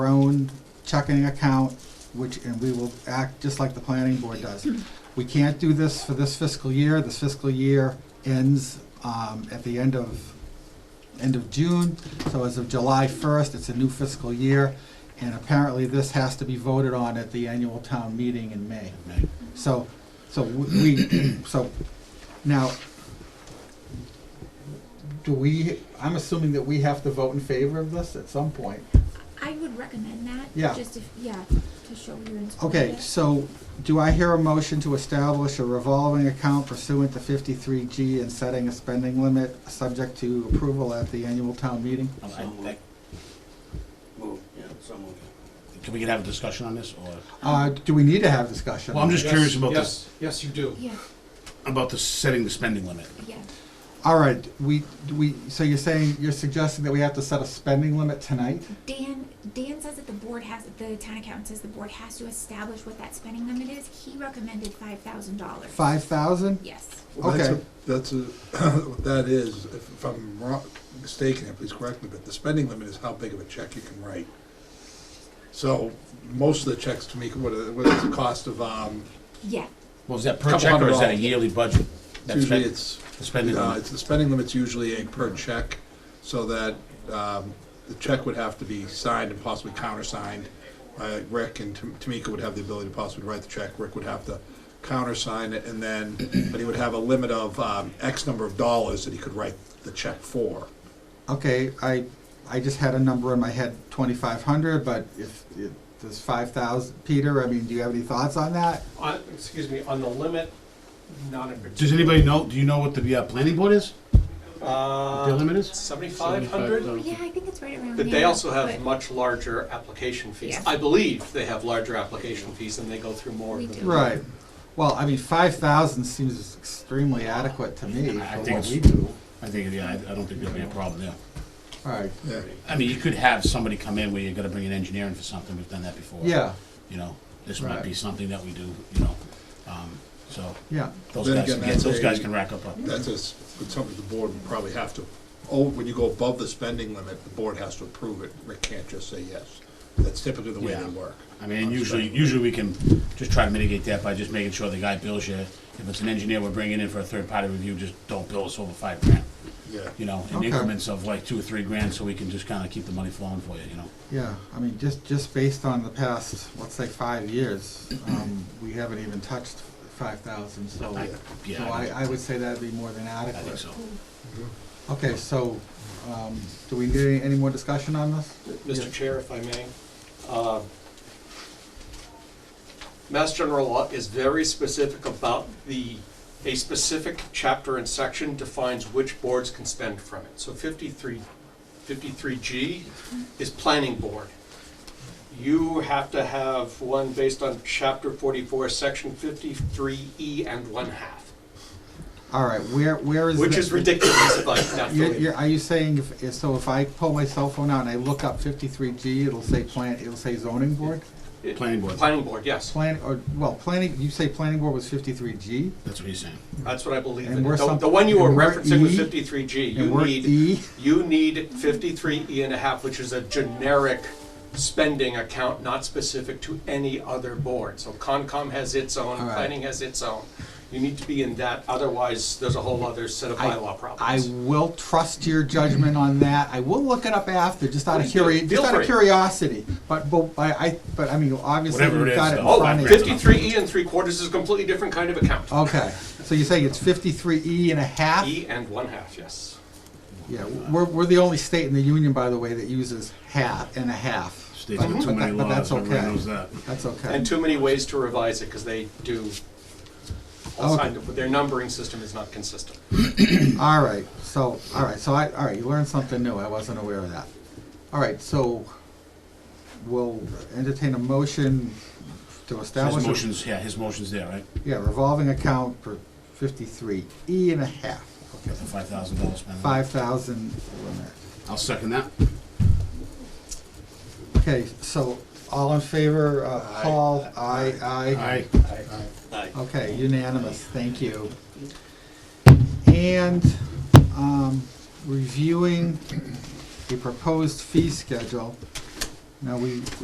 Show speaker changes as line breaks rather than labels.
own checking account, which, and we will act just like the planning board does. We can't do this for this fiscal year. This fiscal year ends um, at the end of, end of June. So as of July 1st, it's a new fiscal year. And apparently, this has to be voted on at the annual town meeting in May. So, so we, so now, do we, I'm assuming that we have to vote in favor of this at some point.
I would recommend that.
Yeah.
Just if, yeah, to show your inspiration.
Okay, so do I hear a motion to establish a revolving account pursuant to fifty-three G and setting a spending limit subject to approval at the annual town meeting?
Um,
So
I-
moved.
I-
Move, yeah, so moved.
Can we get have a discussion on this, or?
Uh, do we need to have discussion?
Well, I'm just
Yes,
curious about
yes, Yes, you do.
Yeah,
About the setting the spending limit.
yeah.
All right, we, we, so you're saying, you're suggesting that we have to set a spending limit tonight?
Dan, Dan says that the board has, the town accountant says the board has to establish what that spending limit is. He recommended five thousand dollars.
Five thousand?
Yes.
Well, that's a-
Okay.
That's a, what that is, if if I'm wrong, mistaken, here, please correct me, but the spending limit is how big of a check you can write. So, most of the checks, Tamika, what are, what is the cost of, um,
Yeah.
Well, is that per
Couple
check, or
hundred
is that a
dollars.
yearly budget? That's
usually
spent-
it's,
The spending
uh,
limit.
it's, the spending limit's usually a per check, so that, um, the check would have to be signed and possibly countersigned. Uh, Rick and Tam- Tamika would have the ability to possibly write the check, Rick would have to countersign it, and then, but he would have a limit of, um, X number of dollars that he could write the check for.
Okay, I, I just had a number in my head, twenty-five hundred, but if, if there's five thousand, Peter, I mean, do you have any thoughts on that?
On, excuse me, on the limit, not in
Does
particular.
anybody know, do you know what the uh, planning board is? The
Uh,
limit is?
seventy-five hundred?
Oh, Yeah, I think it's right around there.
But they also have
but
much larger application fees.
Yeah.
I believe they have larger application fees and they go through more
We
of them.
do.
Right, well, I mean, five thousand seems extremely adequate to me
I
for
think
what
it's-
we do.
I think, yeah, I I don't think there'll be a problem there.
All right,
Yeah.
I mean, you could have somebody come in where you're gonna bring an engineer in for something, we've done that before.
yeah,
You know, this might
Right.
be something that we do, you know, um, so,
yeah,
those
Then
guys,
again,
can get-
that's
those
a-
guys can rack up a.
That's a s- it's something the board would probably have to, oh, when you go above the spending limit, the board has to approve it, Rick can't just say yes. That's typically the way they
Yeah.
work.
I mean, and usually, usually we can just try to mitigate that by just making sure the guy bills you. If it's an engineer we're bringing in for a third-party review, just don't bill us over five grand,
Yeah.
you know, in
Okay.
increments of like two or three grand, so we can just kinda keep the money flowing for you, you know?
yeah, I mean, just, just based on the past, let's say, five years, um, we haven't even touched five thousand, so.
I-
So
Yeah,
I,
I
I would say that'd be more than
I think
adequate.
so.
Okay, so, um, do we need any- any more discussion on this? Yeah.
Mr. Chair, if I may. uh, Mass General Law is very specific about the, a specific chapter and section defines which boards can spend from it. So 53, 53G is planning board. You have to have one based on chapter 44, section 53E and one half,
All right, where, where is?
which
the-
is ridiculous if I'm not
You're,
believing.
you're, are you saying, if, if- so if I pull my cell phone out and I look up fifty-three G, it'll say plan, it'll say zoning board?
Planning board,
Planning board, yes.
Plan, or, well, planning, you say planning board was fifty-three G?
that's what he's saying.
That's what I believe
And
in.
we're
The,
some-
the one you were
and we're
referencing was
E,
fifty-three G.
And
You
we're
need,
E,
you need fifty-three E and a half, which is a generic spending account, not specific to any other board. So Concom has its own,
All right.
planning has its own. You need to be in that, otherwise there's a whole other set of
I-
bylaw
I
problems.
will trust your judgment on that, I will look it up after, just out of
Please do.
curi, just
Feel
out of
free.
curiosity. But, but, I, I, but I mean, obviously,
Whatever it
we've
is,
got it Oh, in
though.
Oh,
front of you.
53 E and three quarters is a completely different kind of account.
Okay, so you're saying it's fifty-three E and a half?
E and one half, yes.
Yeah, we're, we're the only state in the union, by the way, that uses half and a half.
States
But-
with too
but
many
that- but
laws,
that's
everybody
okay.
knows that.
That's okay.
And too many ways to revise it, because they do, all
Okay.
kinds of- their numbering system is not consistent.
All right, so, all right, so I, all right, you learned something new, I wasn't aware of that. All right, so we'll entertain a motion to
His
establish. a-
motion's, yeah, his motion's there, right?
Yeah, revolving account for fifty-three, E and a half,
With the five thousand dollar spending.
five thousand limit.
I'll second that.
Okay, so all in favor, uh, Paul, aye, aye.
Aye.
Okay, unanimous, thank you. And um, reviewing the proposed fee schedule. Now, we,